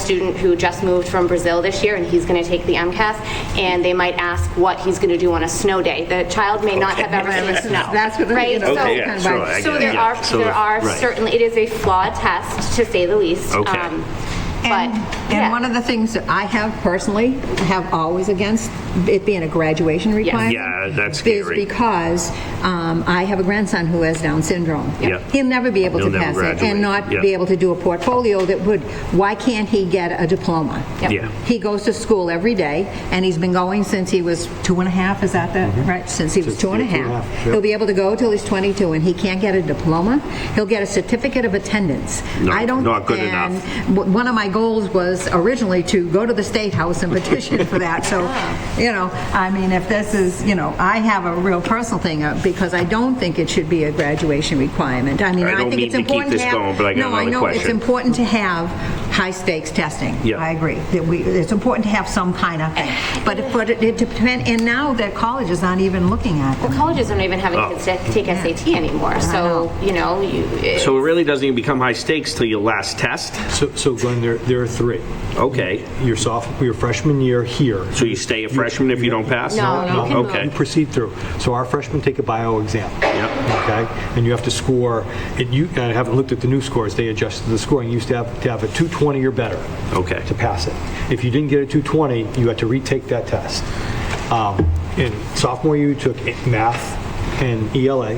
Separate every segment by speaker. Speaker 1: student who just moved from Brazil this year, and he's going to take the MCAS, and they might ask what he's going to do on a snow day. The child may not have ever seen snow.
Speaker 2: That's what, you
Speaker 1: right?
Speaker 2: know,
Speaker 1: So-
Speaker 2: kind
Speaker 3: Okay, yeah,
Speaker 2: of
Speaker 3: sure,
Speaker 2: like-
Speaker 3: I
Speaker 1: So
Speaker 3: get it,
Speaker 1: there
Speaker 3: yeah.
Speaker 1: are,
Speaker 3: So
Speaker 1: there
Speaker 3: if-
Speaker 1: are
Speaker 3: right.
Speaker 1: certainly, it is a flawed test, to say the least.
Speaker 3: Okay.
Speaker 1: um, But,
Speaker 2: And, and one
Speaker 1: yeah,
Speaker 2: of the things that I have personally, have always against it being a graduation requirement.
Speaker 3: Yeah, that's
Speaker 2: Is
Speaker 3: scary.
Speaker 2: because um, I have a grandson who has Down syndrome.
Speaker 3: Yeah.
Speaker 2: He'll never be able
Speaker 3: He'll
Speaker 2: to
Speaker 3: never
Speaker 2: pass it
Speaker 3: graduate,
Speaker 2: and not
Speaker 3: yeah.
Speaker 2: be able to do a portfolio that would, why can't he get a diploma?
Speaker 1: Yep.
Speaker 3: Yeah.
Speaker 2: He goes to school every day, and he's been going since he was two and a half, is that the, right? Mm-hmm. Since he was two and a half. He'll be able to go till he's 22, and he can't get a diploma. He'll get a certificate of attendance.
Speaker 3: No,
Speaker 2: I don't-
Speaker 3: not good
Speaker 2: and
Speaker 3: enough.
Speaker 2: w- One of my goals was originally to go to the State House and petition for that, so,
Speaker 1: Ah.
Speaker 2: you know, I mean, if this is, you know, I have a real personal thing, uh, because I don't think it should be a graduation requirement. I mean,
Speaker 3: I
Speaker 2: I
Speaker 3: don't
Speaker 2: think it's
Speaker 3: mean to keep
Speaker 2: important to
Speaker 3: this
Speaker 2: have...
Speaker 3: going, but I got another
Speaker 2: No, I know, it's
Speaker 3: question.
Speaker 2: important to have high-stakes testing.
Speaker 3: Yeah.
Speaker 2: I agree, that we, it's important to have some kind of thing, but it, but it depends, and now that college is not even looking at
Speaker 1: well,
Speaker 2: them.
Speaker 1: colleges aren't even having
Speaker 3: Oh.
Speaker 1: kids to take SAT anymore, so, you know, you, it-
Speaker 3: So it really doesn't even become high stakes till your last test?
Speaker 4: So, so Glenn, there, there are three.
Speaker 3: Okay.
Speaker 4: Your sophomore, your freshman year here.
Speaker 3: So you stay a freshman if you don't pass?
Speaker 1: No, you can
Speaker 3: Okay.
Speaker 4: You proceed through. So our freshmen take a bio exam.
Speaker 3: Yep.
Speaker 4: Okay? And you have to score, and you, and I haven't looked at the new scores, they adjusted the scoring. You used to have, to have a 220 or better.
Speaker 3: Okay.
Speaker 4: To pass it. If you didn't get a 220, you had to retake that test. Um, In sophomore year, you took math and ELA,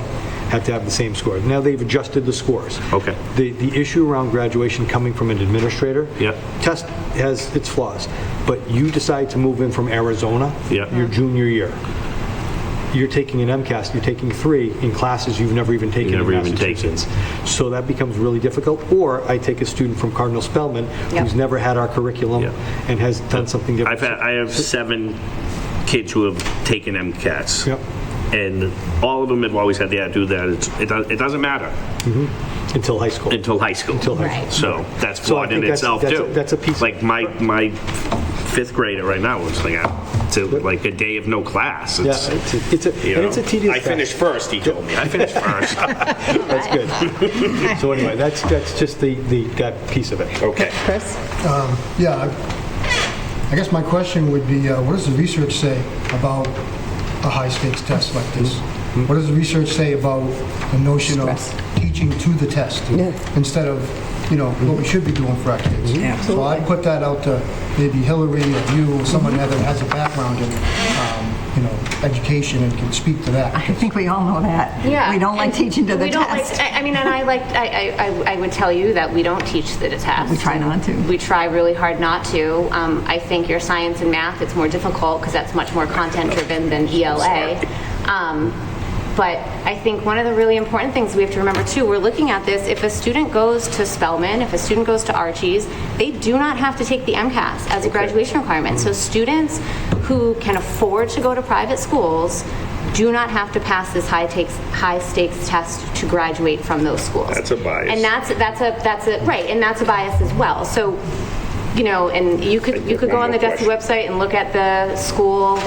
Speaker 4: had to have the same score. Now they've adjusted the scores.
Speaker 3: Okay.
Speaker 4: The, the issue around graduation coming from an administrator.
Speaker 3: Yep.
Speaker 4: Test has its flaws, but you decide to move in from Arizona.
Speaker 3: Yep.
Speaker 4: Your junior year. You're taking an MCAS, you're taking three in classes you've never even taken in
Speaker 3: never even taken.
Speaker 4: Massachusetts. So that becomes really difficult. Or I take a student from Cardinal Spellman, who's never had our curriculum
Speaker 3: Yep.
Speaker 4: and has done something different.
Speaker 3: I've had, I have seven kids who have taken MCATs.
Speaker 4: Yep.
Speaker 3: And all of them have always had the attitude that it's, it does- it doesn't matter
Speaker 4: Until high school.
Speaker 3: until high school.
Speaker 4: Until high school. Right.
Speaker 3: So that's
Speaker 4: So I
Speaker 3: flawed in
Speaker 4: think that's-
Speaker 3: itself
Speaker 4: that's a-
Speaker 3: too.
Speaker 4: that's a piece of-
Speaker 3: Like my, my fifth grader right now was like, uh, to like a day of no class.
Speaker 4: Yeah,
Speaker 3: It's-
Speaker 4: it's a- it's a,
Speaker 3: you
Speaker 4: and it's a
Speaker 3: know,
Speaker 4: tedious
Speaker 3: I
Speaker 4: task.
Speaker 3: finished first, he told me. I finished first.
Speaker 4: That's good. So anyway, that's, that's just the, the, that piece of it.
Speaker 3: Okay.
Speaker 2: Chris?
Speaker 5: Yeah, I- I guess my question would be, uh, what does the research say about a high-stakes test like this?
Speaker 2: Mm-hmm.
Speaker 5: What does the research say about the notion of teaching to the test? Instead of, you know, what we should be doing for our kids?
Speaker 2: Mm-hmm.
Speaker 5: So I'd put that out to maybe Hillary or you,
Speaker 2: Mm-hmm.
Speaker 5: or someone that has a background in, um, you know, education and can speak to that.
Speaker 2: I think we all know that.
Speaker 1: yeah.
Speaker 2: We don't like
Speaker 1: and
Speaker 2: teaching to the
Speaker 1: we don't like-
Speaker 2: test.
Speaker 1: I I mean, and I like, I, I- I, I would tell you that we don't teach the test.
Speaker 2: We try not to.
Speaker 1: We try really hard not to. Um, I think your science and math, it's more difficult because that's much more content-driven than ELA. Um, But I think one of the really important things we have to remember too, we're looking at this, if a student goes to Spelman, if a student goes to Archie's, they do not have to take the MCAS as a graduation requirement. So students who can afford to go to private schools do not have to pass this high takes, high stakes test to graduate from those schools.
Speaker 3: That's a bias.
Speaker 1: And that's, that's a, that's a, right, and that's a bias as well. So, you know, and you could, you could go on the DESI website and look at the school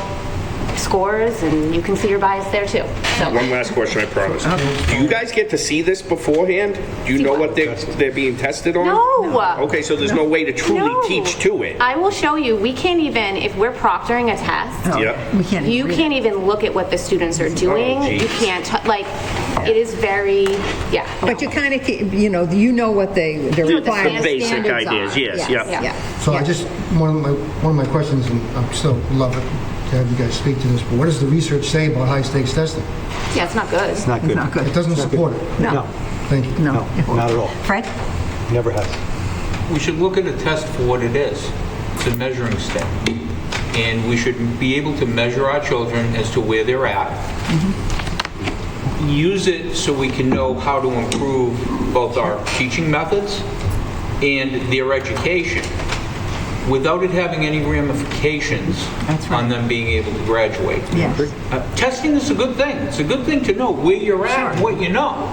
Speaker 1: scores, and you can see your bias there too. So,
Speaker 3: One last question, I promise. Do you guys get to see this beforehand? Do you know what they're, they're being tested on?
Speaker 1: No.
Speaker 3: Okay, so there's no way to
Speaker 1: No.
Speaker 3: truly teach to it?
Speaker 1: I will show you, we can't even, if we're proctoring a test,
Speaker 3: Yeah.
Speaker 2: We can't.
Speaker 1: you
Speaker 2: agree.
Speaker 1: can't even look at what the students
Speaker 3: Oh,
Speaker 1: are doing. You
Speaker 3: geez.
Speaker 1: can't, t- like, it is very, yeah.
Speaker 2: But you kind of, you know, you know what they, the required
Speaker 3: The basic
Speaker 2: standards are.
Speaker 3: ideas, yes, yeah.
Speaker 2: yeah.
Speaker 5: So I just, one of my, one of my questions, and I'm still love it to have you guys speak to this, but what does the research say about high-stakes testing?
Speaker 1: Yeah, it's not good.
Speaker 4: It's not good.
Speaker 2: Not good.
Speaker 5: It doesn't support it.
Speaker 4: No,
Speaker 5: Thank you.
Speaker 4: no, not at all.
Speaker 2: Fred?
Speaker 4: Never has.
Speaker 6: We should look at a test for what it is. It's a measuring stick. And we should be able to measure our children as to where they're at.
Speaker 2: Mm-hmm.
Speaker 6: Use it so we can know how to improve both our teaching methods and their education without it having any ramifications
Speaker 2: That's right.
Speaker 6: on them being able to graduate.
Speaker 2: Yes.
Speaker 6: Uh, Testing is a good thing. It's a good thing to know where you're at, and what you know.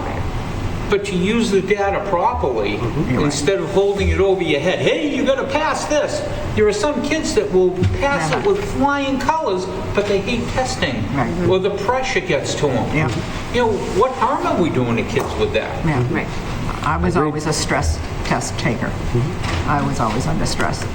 Speaker 6: But to use the data properly,
Speaker 2: Mm-hmm.
Speaker 6: instead of holding it over your head, hey, you gotta pass this. There are some kids that will pass it with flying colors, but they hate testing,
Speaker 2: Right.
Speaker 6: or the pressure gets to them.
Speaker 2: Yeah.
Speaker 6: You know, what harm are we doing to kids with that?
Speaker 2: Yeah, right. I was always a stress test taker.
Speaker 7: I was always under stress.